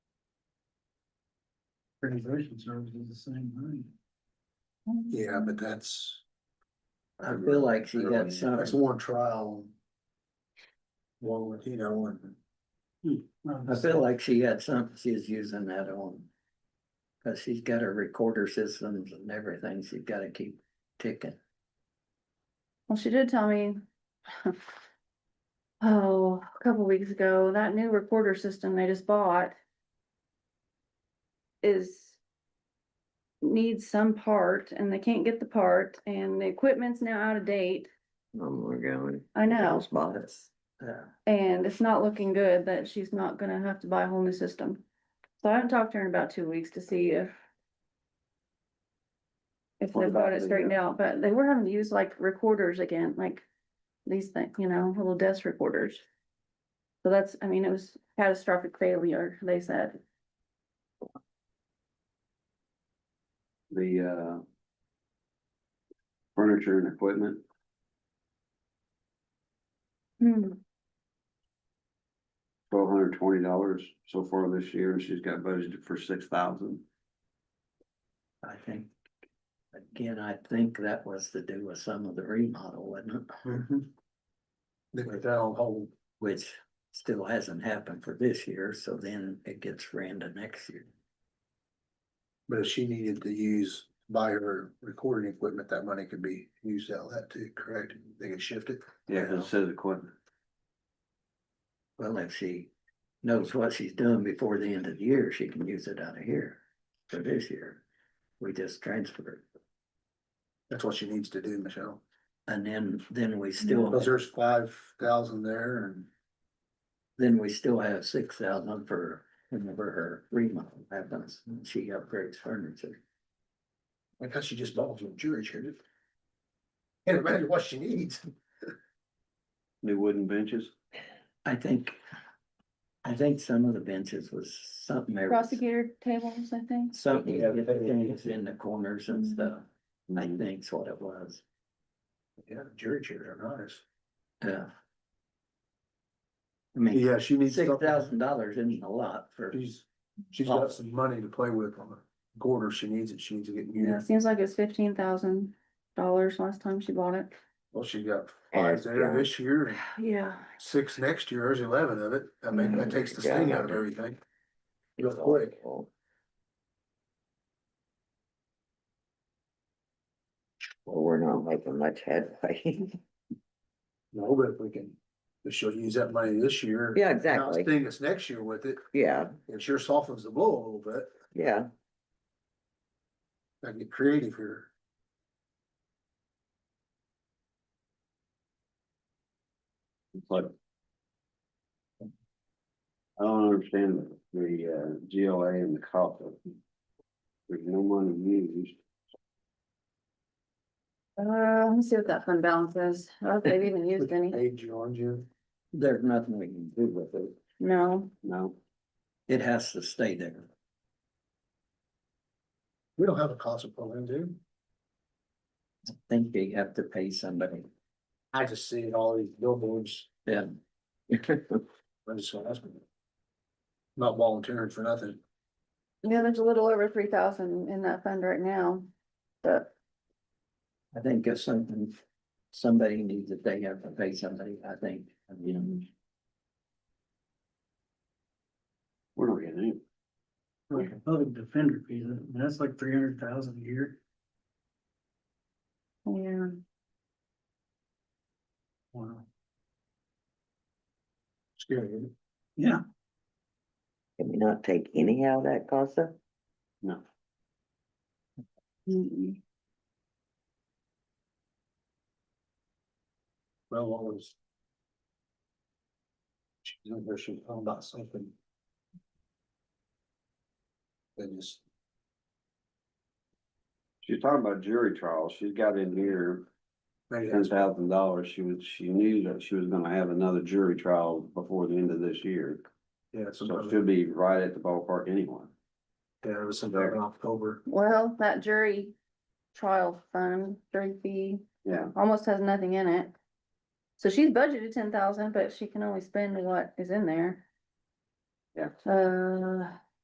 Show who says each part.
Speaker 1: Transition service is the same money.
Speaker 2: Yeah, but that's.
Speaker 3: I feel like she got some.
Speaker 2: That's one trial. One with, you know, and
Speaker 1: Hmm.
Speaker 3: I feel like she had something she's using that on. Cause she's got her recorder systems and everything, she's gotta keep ticking.
Speaker 4: Well, she did tell me. Oh, a couple weeks ago, that new recorder system they just bought. Is. Needs some part and they can't get the part and the equipment's now out of date.
Speaker 3: Um, we're going.
Speaker 4: I know,
Speaker 3: Spots. Yeah,
Speaker 4: and it's not looking good that she's not gonna have to buy a whole new system. So I haven't talked to her in about two weeks to see if. If
Speaker 3: What
Speaker 4: they've got
Speaker 3: about
Speaker 4: it
Speaker 3: the,
Speaker 4: straightened out, but they were having to use like recorders again, like these things, you know, little desk recorders. So that's, I mean, it was catastrophic failure, they said.
Speaker 5: the uh. Furniture and equipment,
Speaker 4: Hmm,
Speaker 5: twelve hundred twenty dollars so far this year, and she's got budgeted for six thousand.
Speaker 3: I think. Again, I think that was to do with some of the remodel, wasn't it?
Speaker 1: Mm-hmm.
Speaker 2: they put that on hold.
Speaker 3: Which still hasn't happened for this year, so then it gets ran to next year.
Speaker 2: But if she needed to use, buy her recording equipment, that money could be used out of that too, correct? They could shift it.
Speaker 5: Yeah, 'cause it says equipment.
Speaker 3: Well, if she knows what she's doing before the end of the year, she can use it out of here for this year. We just transfer it.
Speaker 2: That's what she needs to do, Michelle.
Speaker 3: And then, then we still,
Speaker 2: Cause there's five thousand there and
Speaker 3: then we still have six thousand for whenever her remodel happens. and She upgrades furniture.
Speaker 2: I guess she just bought some jury chairs. Can't imagine what she needs.
Speaker 5: New wooden benches,
Speaker 3: I think, I think some of the benches was something. there was
Speaker 4: prosecutor tables, I think.
Speaker 3: Something
Speaker 2: Yeah,
Speaker 3: to get
Speaker 2: they-
Speaker 3: things in the corners and stuff. I
Speaker 5: Mhm.
Speaker 3: think's what it was.
Speaker 2: Yeah, jury chairs are nice.
Speaker 3: Yeah. I mean,
Speaker 2: Yeah, she needs.
Speaker 3: six
Speaker 2: something.
Speaker 3: thousand dollars isn't a lot for.
Speaker 2: She's, she's got some money to play with on the quarter. She needs it. She needs to get
Speaker 4: Yeah,
Speaker 2: new.
Speaker 4: it seems like it's fifteen thousand dollars last time she bought it.
Speaker 2: Well, she got five there this year and
Speaker 4: Yeah.
Speaker 2: six next year. There's eleven of it. I mean, that takes the sting out of everything. Real quick.
Speaker 6: Well, we're not making much headway.
Speaker 2: No, but if we can, if she'll use that money this year.
Speaker 6: Yeah,
Speaker 2: not
Speaker 6: exactly.
Speaker 2: Sting us next year with it.
Speaker 6: Yeah,
Speaker 2: It sure softens the blow a little bit.
Speaker 6: yeah.
Speaker 2: I can get creative here.
Speaker 5: it's like. I don't understand the uh GLA and the COPA. There's no money used,
Speaker 4: Uh, let me see what that fund balance is. I don't know if they've even used any.
Speaker 2: Age you on you.
Speaker 3: There's nothing we can do with it.
Speaker 4: No,
Speaker 5: no,
Speaker 3: It has to stay there.
Speaker 2: We don't have a cost of program, do?
Speaker 3: I Think they have to pay somebody.
Speaker 2: I just see all these billboards.
Speaker 3: Yeah.
Speaker 2: I'm just gonna ask them. Not volunteering for nothing.
Speaker 4: yeah, there's a little over three thousand in that fund right now, but
Speaker 3: I think if something, somebody needs it, they have to pay somebody, I think, you know.
Speaker 5: we're not getting any.
Speaker 1: Like a public defender fee, that- that's like three hundred thousand a year.
Speaker 4: yeah.
Speaker 1: Wow.
Speaker 2: Scary. isn't it?
Speaker 1: Yeah,
Speaker 6: Can we not take any out of that CASA?
Speaker 4: Mm-mm.
Speaker 2: Well, always. She's over, she's talking about something. Then just,
Speaker 5: She's talking about jury trials, she's got in here
Speaker 2: maybe
Speaker 5: ten
Speaker 2: that's,
Speaker 5: thousand dollars, she was, she knew that she was gonna have another jury trial before the end of this year.
Speaker 2: yeah,
Speaker 5: So
Speaker 2: some,
Speaker 5: it
Speaker 2: yeah,
Speaker 5: should be right at the ballpark anyway.
Speaker 2: it was something in October.
Speaker 4: Well, that jury trial fund, jury fee,
Speaker 5: Yeah.
Speaker 4: almost has nothing in it. So she's budgeted ten thousand, but she can only spend what is in there.
Speaker 5: Yeah.
Speaker 4: Uh,